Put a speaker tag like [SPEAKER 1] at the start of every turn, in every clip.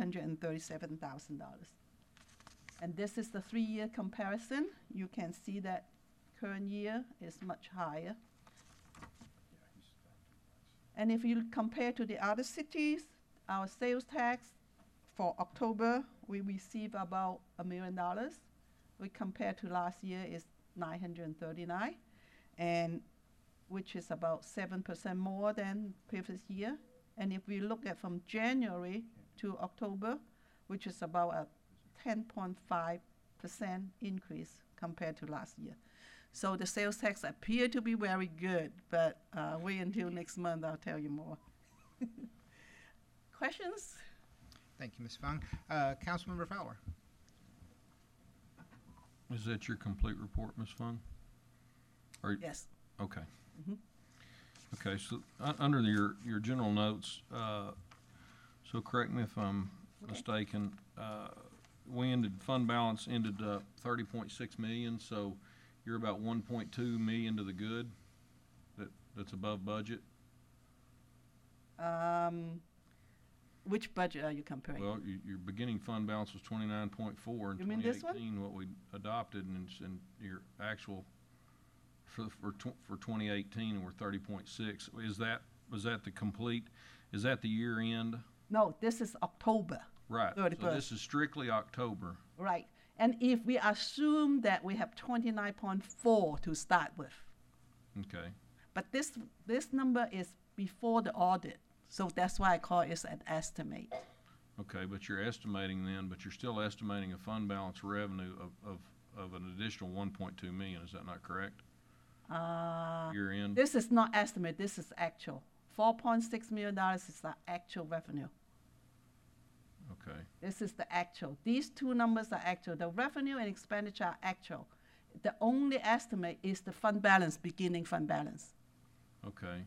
[SPEAKER 1] hundred and thirty-seven thousand dollars. And this is the three-year comparison. You can see that current year is much higher. And if you compare to the other cities, our sales tax for October, we receive about a million dollars. We compare to last year is nine hundred and thirty-nine, and which is about seven percent more than previous year. And if we look at from January to October, which is about a ten point five percent increase compared to last year. So the sales tax appear to be very good, but uh, wait until next month, I'll tell you more. Questions?
[SPEAKER 2] Thank you, Ms. Fung. Uh, Councilmember Fowler?
[SPEAKER 3] Is that your complete report, Ms. Fung? Or-
[SPEAKER 1] Yes.
[SPEAKER 3] Okay.
[SPEAKER 1] Mhm.
[SPEAKER 3] Okay, so, uh, under your, your general notes, uh, so correct me if I'm
[SPEAKER 1] Okay.
[SPEAKER 3] mistaken, uh, we ended, fund balance ended up thirty point six million, so you're about one point two million to the good? That, that's above budget?
[SPEAKER 1] Um, which budget are you comparing?
[SPEAKER 3] Well, your, your beginning fund balance was twenty-nine point four in
[SPEAKER 1] You
[SPEAKER 3] twenty
[SPEAKER 1] mean this one?
[SPEAKER 3] eighteen, what we adopted, and, it's- and your actual for, for tw- for twenty eighteen, we're thirty point six. Is that, was that the complete, is that the year end?
[SPEAKER 1] no, this is October,
[SPEAKER 3] Right, so
[SPEAKER 1] 31st.
[SPEAKER 3] this is strictly October.
[SPEAKER 1] right? And if we assume that we have 29.4 to start with,
[SPEAKER 3] Okay,
[SPEAKER 1] but this this number is before the audit, so that's why I call it an estimate.
[SPEAKER 3] okay, but you're estimating then, but you're still estimating a fund balance revenue of, of, of an additional one point two million, is that not correct?
[SPEAKER 1] Uh,
[SPEAKER 3] Year end?
[SPEAKER 1] This is not estimate, this is actual. $4.6 million is the actual revenue.
[SPEAKER 3] Okay,
[SPEAKER 1] This is the actual. These two numbers are actual. The revenue and expenditure are actual. The only estimate is the fund balance, beginning fund balance.
[SPEAKER 3] okay.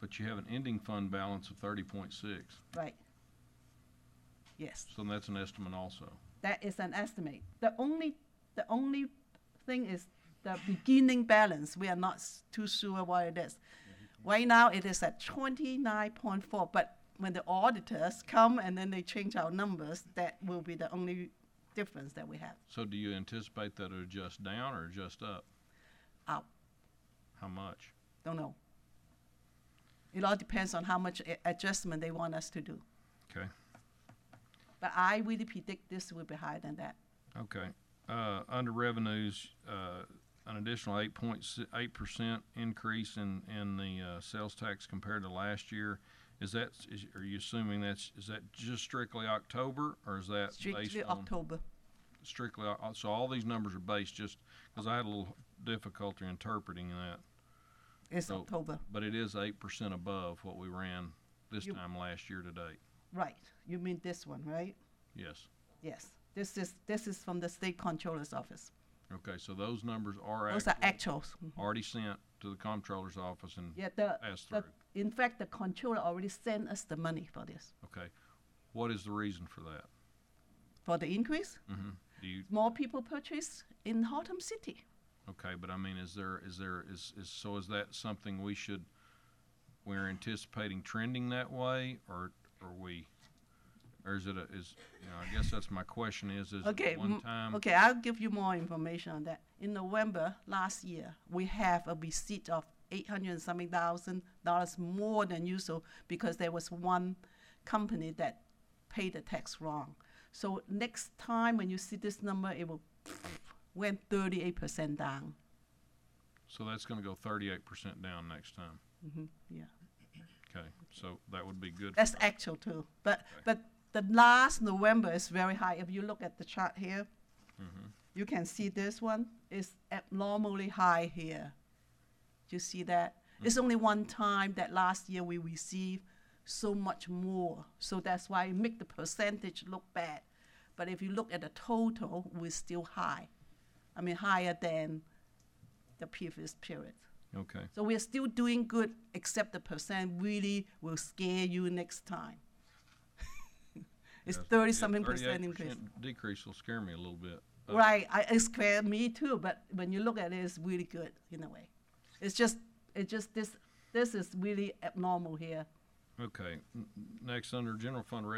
[SPEAKER 3] But you have an ending fund balance of thirty point six.
[SPEAKER 1] Right. Yes,
[SPEAKER 3] So that's an estimate also.
[SPEAKER 1] that is an estimate. The only, the only thing is the beginning balance. We are not s- too sure what it is.
[SPEAKER 3] Mm-hmm.
[SPEAKER 1] Right now, it is at twenty-nine point four, but when the auditors come and then they change our numbers, that will be the only difference that we have.
[SPEAKER 3] So do you anticipate that it'll adjust down or adjust up?
[SPEAKER 1] Up.
[SPEAKER 3] How much?
[SPEAKER 1] Don't know. It all depends on how much a- adjustment they want us to do.
[SPEAKER 3] Okay,
[SPEAKER 1] But I really predict this will be higher than that.
[SPEAKER 3] okay. Uh, under revenues, uh, an additional eight point eight percent increase in, in the, uh, sales tax compared to last year. Is that, is, are you assuming that's, is that just strictly October or is that based
[SPEAKER 1] Strictly
[SPEAKER 3] on?
[SPEAKER 1] October.
[SPEAKER 3] Strictly, Oc- so all these numbers are based just, cause I had a little difficulty interpreting that.
[SPEAKER 1] It's
[SPEAKER 3] So-
[SPEAKER 1] October,
[SPEAKER 3] But it is eight percent above what we ran this
[SPEAKER 1] You-
[SPEAKER 3] time last year to date.
[SPEAKER 1] right. You mean this one, right?
[SPEAKER 3] Yes.
[SPEAKER 1] Yes. This is, this is from the state controller's office.
[SPEAKER 3] Okay, so those numbers are
[SPEAKER 1] Those are
[SPEAKER 3] actual,
[SPEAKER 1] actuals. Mm-hmm.
[SPEAKER 3] already sent to the comptroller's office and
[SPEAKER 1] Yeah, the,
[SPEAKER 3] passed
[SPEAKER 1] the,
[SPEAKER 3] through.
[SPEAKER 1] in fact, the controller already sent us the money for this,
[SPEAKER 3] Okay, what is the reason for that?
[SPEAKER 1] for the increase.
[SPEAKER 3] hmm Do you,
[SPEAKER 1] More people purchase in Harlem City.
[SPEAKER 3] okay, but I mean, is there, is there, is, is, so is that something we should, we're anticipating trending that way, or are we, or is it a, is, you know, I guess that's my question is, is
[SPEAKER 1] Okay,
[SPEAKER 3] it one
[SPEAKER 1] m-
[SPEAKER 3] time?
[SPEAKER 1] Okay, I'll give you more information on that. In November last year, we have a receipt of eight hundred and something thousand dollars more than usual because there was one company that paid the tax wrong. So next time when you see this number, it will went thirty-eight percent down.
[SPEAKER 3] So that's gonna go thirty-eight percent down next time,
[SPEAKER 1] hmm yeah,
[SPEAKER 3] okay, so that would be good.
[SPEAKER 1] that's actual too. But but the last November is very high. If you look at the chart here,
[SPEAKER 3] Mhm.
[SPEAKER 1] you can see this one is abnormally high here. Do you see that?
[SPEAKER 3] Mm.
[SPEAKER 1] It's only one time that last year we received so much more. So that's why it make the percentage look bad. But if you look at the total, we're still high. I mean, higher than the previous period.
[SPEAKER 3] Okay,
[SPEAKER 1] So we're still doing good, except the percent really will scare you next time. It's
[SPEAKER 3] Yes.
[SPEAKER 1] thirty
[SPEAKER 3] Yeah,
[SPEAKER 1] something percent
[SPEAKER 3] 38%
[SPEAKER 1] increase.
[SPEAKER 3] Decrease will scare me a little bit. Uh,
[SPEAKER 1] Right, I, it scared me too, but when you look at it, it's really good in a way. It's just, it just, this, this is really abnormal here.
[SPEAKER 3] Okay, n- n- next, under general fund